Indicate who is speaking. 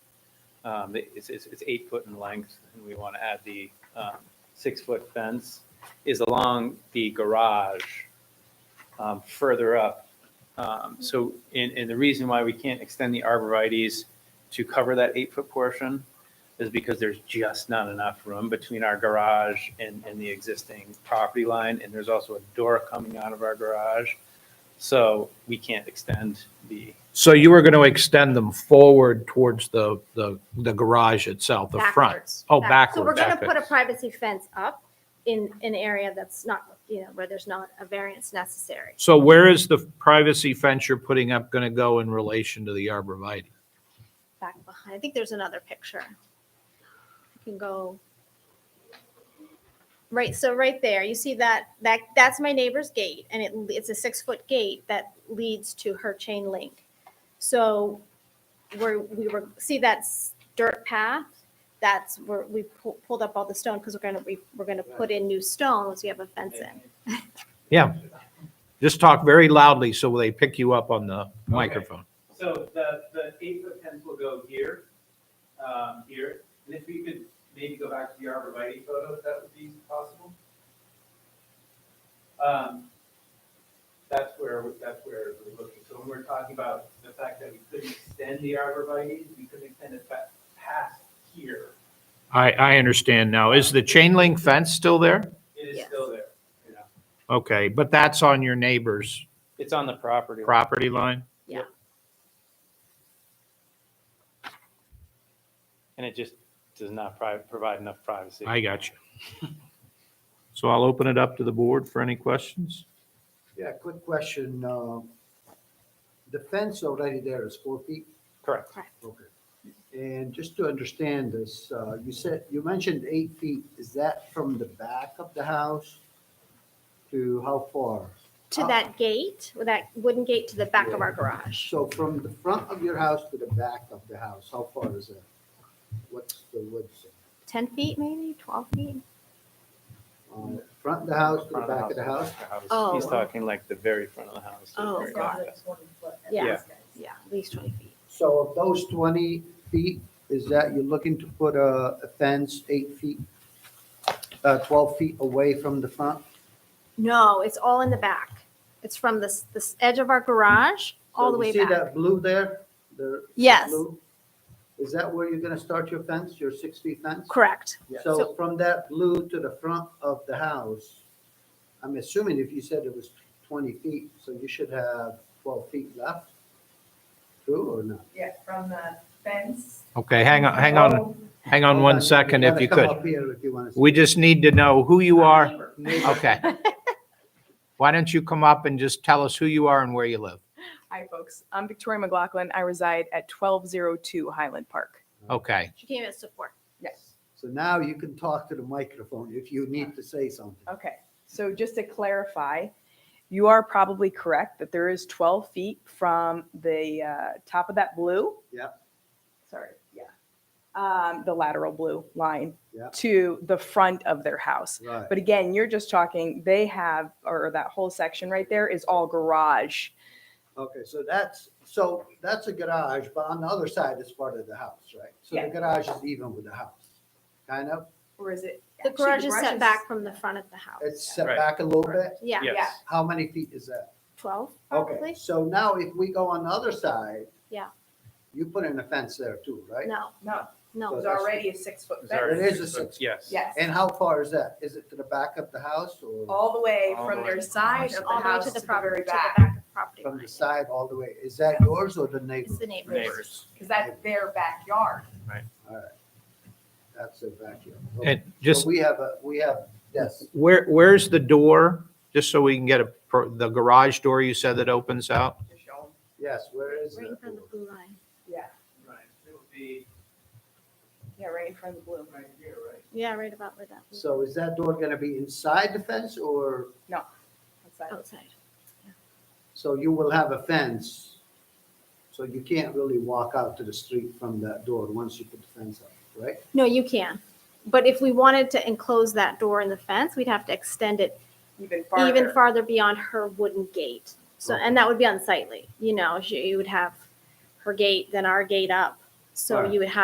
Speaker 1: Um, It's, it's, it's eight foot in length, and we want to add the um, six-foot fence, is along the garage um, further up. Um, So, and, and the reason why we can't extend the arborvitae's to cover that eight-foot portion is because there's just not enough room between our garage and, and the existing property line, and there's also a door coming out of our garage. So we can't extend the,
Speaker 2: So you were going to extend them forward towards the, the, the garage itself, the front?
Speaker 3: Backwards.
Speaker 2: Oh,
Speaker 3: Back-
Speaker 2: backwards.
Speaker 3: So we're going to
Speaker 2: okay.
Speaker 3: put a privacy fence up in an area that's not, you know, where there's not a variance necessary.
Speaker 2: So where is the privacy fence you're putting up going to go in relation to the arborvitae?
Speaker 3: Back behind, I think there's another picture. You can go. Right, so right there, you see that, that, that's my neighbor's gate and it, it's a six-foot gate that leads to her chain link. So where we were, see that s- dirt path? That's where we pu- pulled up all the stone because we're going to, we we're going to put in new stone once we have a fence in.
Speaker 2: Yeah. Just talk very loudly so they pick you up on the microphone.
Speaker 1: So the, the eight foot fence will go here, um, here, and if we could maybe go back to the arborvitae photo, if that would be possible. Um, that's where, that's where we're looking, so when we're talking about the fact that we couldn't extend the arborvitae, we couldn't extend it pa- past here,
Speaker 2: I, I understand now. Is the chain link fence still there?
Speaker 1: it is
Speaker 3: Yes.
Speaker 1: still there, you know.
Speaker 2: Okay, but that's on your neighbor's
Speaker 1: It's on the property.
Speaker 2: property line?
Speaker 1: And it just does not provide enough privacy.
Speaker 2: I got you. So I'll open it up to the board for any questions?
Speaker 4: Yeah, quick question. uh, The fence already there is four feet?
Speaker 1: Correct.
Speaker 4: Okay. And just to understand this, uh, you said, you mentioned eight feet. Is that from the back of the house to how far? Oh.
Speaker 3: to that gate, with that wooden gate to the back of our garage.
Speaker 4: So from the front of your house to the back of the house, how far is that? What's the width?
Speaker 3: Ten feet, maybe twelve feet.
Speaker 4: Um, Front of the house to the back of the house?
Speaker 3: Oh.
Speaker 1: He's talking like the very front of the house. the
Speaker 3: Oh,
Speaker 1: very
Speaker 3: got
Speaker 1: back.
Speaker 3: Yeah.
Speaker 1: Yeah.
Speaker 3: Yeah, at least twenty feet.
Speaker 4: So of those 20 feet, is that you're looking to put a a fence eight feet, uh, 12 feet away from the front?
Speaker 3: No, it's all in the back. It's from this this edge of our garage all the
Speaker 4: So you
Speaker 3: way
Speaker 4: See
Speaker 3: back.
Speaker 4: that blue there? The- the
Speaker 3: Yes.
Speaker 4: blue? Is that where you're going to start your fence, your 6-feet fence?
Speaker 3: Correct.
Speaker 4: So
Speaker 3: So-
Speaker 4: from that blue to the front of the house, I'm assuming if you said it was 20 feet, so you should have 12 feet left? True or not?
Speaker 5: Yeah, from the fence. Oh.
Speaker 2: Okay, hang on, hang on, hang on one second if you
Speaker 4: Come
Speaker 2: could.
Speaker 4: up here if you want to.
Speaker 2: We just need to know who you are. Okay. Why don't you come up and just tell us who you are and where you live?
Speaker 5: Hi, folks. I'm Victoria McLaughlin. I reside at 1202 Highland Park.
Speaker 2: Okay,
Speaker 3: She came as support.
Speaker 5: Yes.
Speaker 4: So now you can talk to the microphone if you need to say something.
Speaker 5: Okay, so just to clarify, you are probably correct that there is 12 feet from the uh, top of that blue.
Speaker 4: Yep.
Speaker 5: Sorry, yeah. Um, The lateral blue line
Speaker 4: Yep.
Speaker 5: to the front of their house.
Speaker 4: Right.
Speaker 5: But again, you're just talking, they have, or that whole section right there is all garage.
Speaker 4: Okay, so that's, so that's a garage, but on the other side is part of the house, right? So
Speaker 5: Yeah.
Speaker 4: the garage is even with the house, kind of?
Speaker 5: Or is it?
Speaker 3: The garage is set back from the front of the house.
Speaker 4: It's set
Speaker 1: Right.
Speaker 4: back a little bit.
Speaker 3: Yeah,
Speaker 1: Yes.
Speaker 4: How many feet is that?
Speaker 3: twelve
Speaker 4: Okay,
Speaker 3: probably.
Speaker 4: so now if we go on the other side.
Speaker 3: Yeah.
Speaker 4: You put in a fence there too, right?
Speaker 3: No,
Speaker 5: No,
Speaker 3: no.
Speaker 4: So-
Speaker 5: It's already a six foot
Speaker 1: It's already
Speaker 5: fence.
Speaker 4: It is a
Speaker 1: six foot,
Speaker 4: six-
Speaker 1: Yes.
Speaker 5: Yes.
Speaker 4: And how far is that? Is it to the back of the house or
Speaker 5: All the way
Speaker 1: All the
Speaker 5: from
Speaker 1: way.
Speaker 5: their side of the
Speaker 3: All the way
Speaker 5: house
Speaker 3: to
Speaker 5: to
Speaker 3: the
Speaker 5: the
Speaker 3: property,
Speaker 5: very
Speaker 3: to the back
Speaker 5: back.
Speaker 3: of the property
Speaker 4: from
Speaker 3: line.
Speaker 4: the side all the way? Is that yours or the
Speaker 3: It's
Speaker 4: neighbor's?
Speaker 3: the neighbors.
Speaker 1: Neighbors.
Speaker 5: Cause that's their backyard.
Speaker 4: That's a vacuum.
Speaker 2: and
Speaker 4: So
Speaker 2: just,
Speaker 4: We have a, we have, yes.
Speaker 2: where, where's the door? Just so we can get a, pro- the garage door you said that opens out?
Speaker 4: Yes, where is
Speaker 3: Right in
Speaker 4: it?
Speaker 3: front of the blue line.
Speaker 5: Yeah,
Speaker 1: Right, it would be
Speaker 5: yeah, right in front of the blue.
Speaker 1: right here, right?
Speaker 3: Yeah, right about where that was
Speaker 4: So is that door gonna be inside the fence or,
Speaker 5: That's that.
Speaker 3: outside.
Speaker 4: so you will have a fence? So you can't really walk out to the street from that door once you put the fence up, right?
Speaker 3: No, you can. But if we wanted to enclose that door in the fence, we'd have to extend it
Speaker 5: Even
Speaker 3: even
Speaker 5: farther.
Speaker 3: farther beyond her wooden gate. So, and that would be unsightly, you know, she, you would have her gate, then our gate up. So
Speaker 4: Right.
Speaker 3: you would have